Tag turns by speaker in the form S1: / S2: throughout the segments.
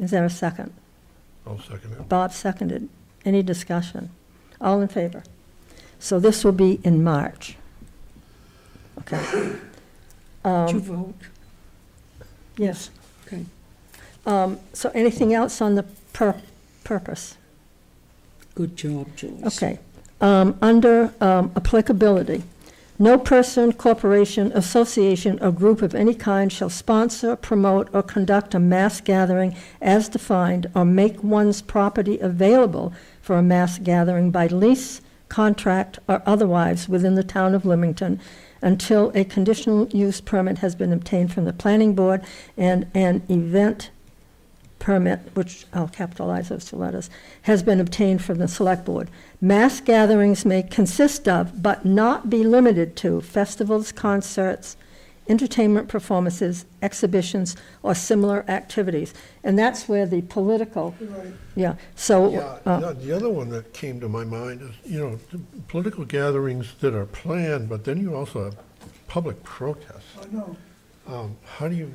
S1: Is there a second?
S2: I'll second it.
S1: Bob seconded. Any discussion? All in favor? So this will be in March. Okay.
S3: Did you
S1: Um,
S3: vote?
S1: Yes.
S3: Okay.
S1: Um, So anything else on the pur- purpose?
S3: Good job, Joyce.
S1: Okay. Um, Under um, applicability, no person, corporation, association, or group of any kind shall sponsor, promote, or conduct a mass gathering as defined, or make one's property available for a mass gathering by lease, contract, or otherwise within the town of Leamington until a conditional use permit has been obtained from the planning board and an event permit, which I'll capitalize those two letters, has been obtained from the select board. Mass gatherings may consist of, but not be limited to, festivals, concerts, entertainment performances, exhibitions, or similar activities. And that's where the political, yeah, so,
S2: Yeah,
S1: uh,
S2: yeah, the other one that came to my mind is, you know, the political gatherings that are planned, but then you also have public protests.
S4: I know.
S2: Um, How do you?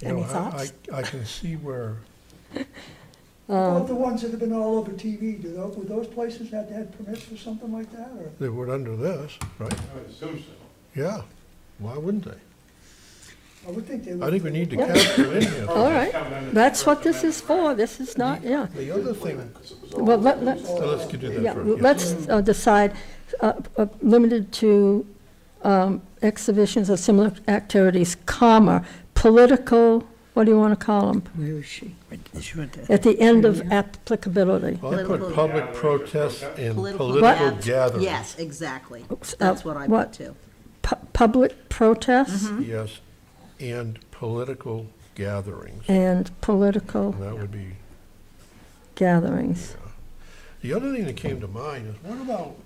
S2: you
S1: Any
S2: know, I-
S1: thoughts?
S2: I, I can see where,
S1: Uh.
S4: About the ones that have been all over TV, do those, would those places have to have permits for something like that, or?
S2: they would under this, right?
S5: I would assume so.
S2: Yeah, why wouldn't they?
S4: I would think they would.
S2: I think we need to
S1: Yeah.
S2: capture in here.
S1: all right, that's what this is for, this is not, yeah.
S2: The other thing,
S1: Well, let, let's,
S2: so let's do
S1: Yeah,
S2: that
S1: well,
S2: first.
S1: let's uh, decide, uh, uh, limited to um, exhibitions or similar activities, comma, political, what do you want to call them?
S3: Where is she?
S1: At the end of applicability.
S2: Well, I put
S6: Political-
S2: public protests and
S6: Political
S2: political
S6: gath-
S2: gatherings.
S6: Yes, exactly.
S1: Oops,
S6: That's
S1: uh,
S6: what I
S1: what?
S6: put too.
S1: Pu- Public protests
S2: Yes, and political gatherings.
S6: Mm-hmm.
S1: and political
S2: And that would be,
S1: gatherings.
S2: the other thing that came to mind is what about,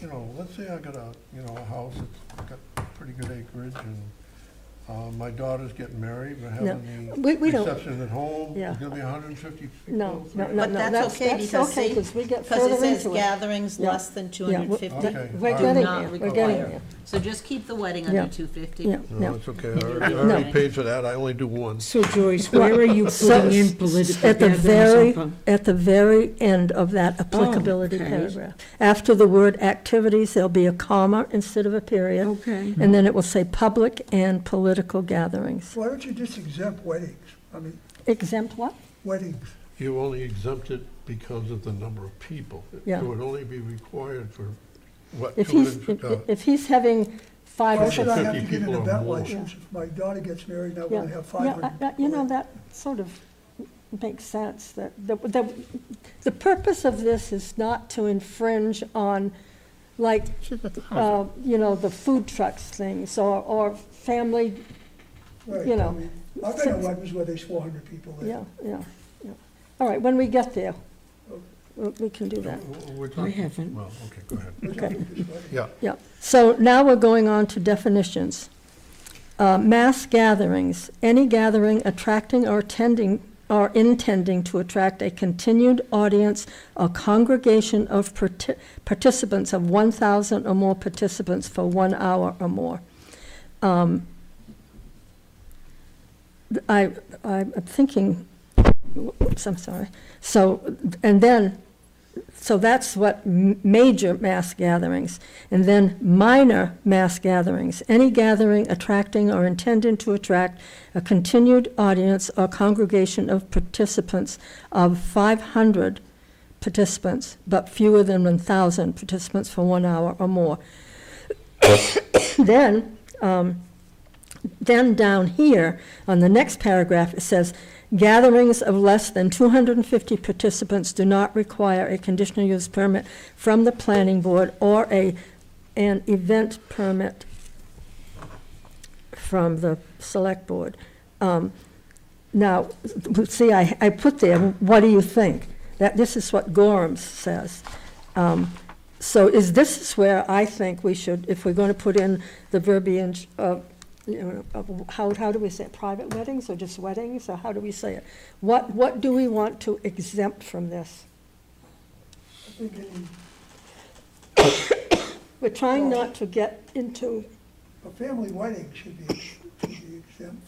S2: you know, let's say I got a, you know, a house that's got pretty good acreage and uh, my daughter's getting married, we're
S1: No,
S2: having
S1: we-
S2: the
S1: we don't-
S2: reception at home,
S1: Yeah.
S2: there's gonna be hundred and fifty people.
S1: No, no, no, no.
S6: But that's okay because
S1: okay,
S6: see,
S1: 'cause we get
S6: because it
S1: further
S6: says
S1: into it.
S6: gatherings
S1: Yeah.
S6: less than
S1: Yeah, we-
S6: 250.
S2: Okay.
S1: We're
S2: all right.
S1: getting
S6: not
S1: there, we're getting
S6: require.
S1: there,
S6: So just keep the wedding under
S1: Yeah. yeah,
S6: 250.
S1: yeah.
S2: No, it's okay, I already- I already
S1: No.
S2: paid for that, I only do one.
S3: So Joyce, where are you
S1: So,
S3: putting in political
S1: At the
S3: gatherings?
S1: very,
S3: on
S1: at the very end of that applicability
S3: okay.
S1: paragraph. After the word activities, there'll be a comma instead of a
S3: pub-
S1: period.
S3: Okay.
S1: And then it will say public and political gatherings.
S4: Why don't you just exempt weddings? I mean,
S1: Exempt what?
S4: weddings.
S2: You only exempt it because of the number of people.
S1: Yeah.
S2: It would only be required for, what,
S1: If
S2: two
S1: he's,
S2: hundred,
S1: if-
S2: uh,
S1: if he's having five
S4: Why
S1: or
S4: should
S1: six.
S4: I have to get
S2: 50
S4: an
S2: people or
S4: event
S2: more.
S4: license if my daughter gets married and I
S1: Yeah,
S4: want to have
S1: yeah,
S4: five
S1: I- I- You know,
S4: hundred?
S1: that sort of makes sense, that, the, the, the purpose of this is not to infringe on, like, uh, you know, the food trucks things, or, or family,
S4: Right,
S1: you
S4: I
S1: know,
S4: mean, I've been at weddings where there's four hundred people there.
S1: yeah, yeah, yeah. All right, when we get there, we we can do that,
S2: we're
S3: I
S2: talking-
S3: haven't.
S2: well, okay, go ahead.
S4: We're
S1: okay.
S4: talking just weddings.
S2: Yeah,
S1: Yeah, so now we're going on to definitions. Uh, Mass gatherings, any gathering attracting or attending, or intending to attract a continued audience or congregation of parti- participants of 1,000 or more participants for one hour or more. Um, I, I'm thinking, whoops, I'm sorry. So, and then, so that's what m- major mass gatherings. And then minor mass gatherings, any gathering attracting or intending to attract a continued audience or congregation of participants of 500 participants, but fewer than 1,000 participants for one hour or more. Then, um, then down here, on the next paragraph, it says, "Gatherings of less than 250 participants do not require a conditional use permit from the planning board or a, an event permit from the select board." Um, Now, see, I, I put there, what do you think? That, this is what Gorham says. Um, So is this is where I think we should, if we're going to put in the verbiage of, you know, of how, how do we say it? Private weddings or just weddings, or how do we say it? What, what do we want to exempt from this?
S4: I think any-
S1: We're trying not to get into,
S4: A family wedding should be,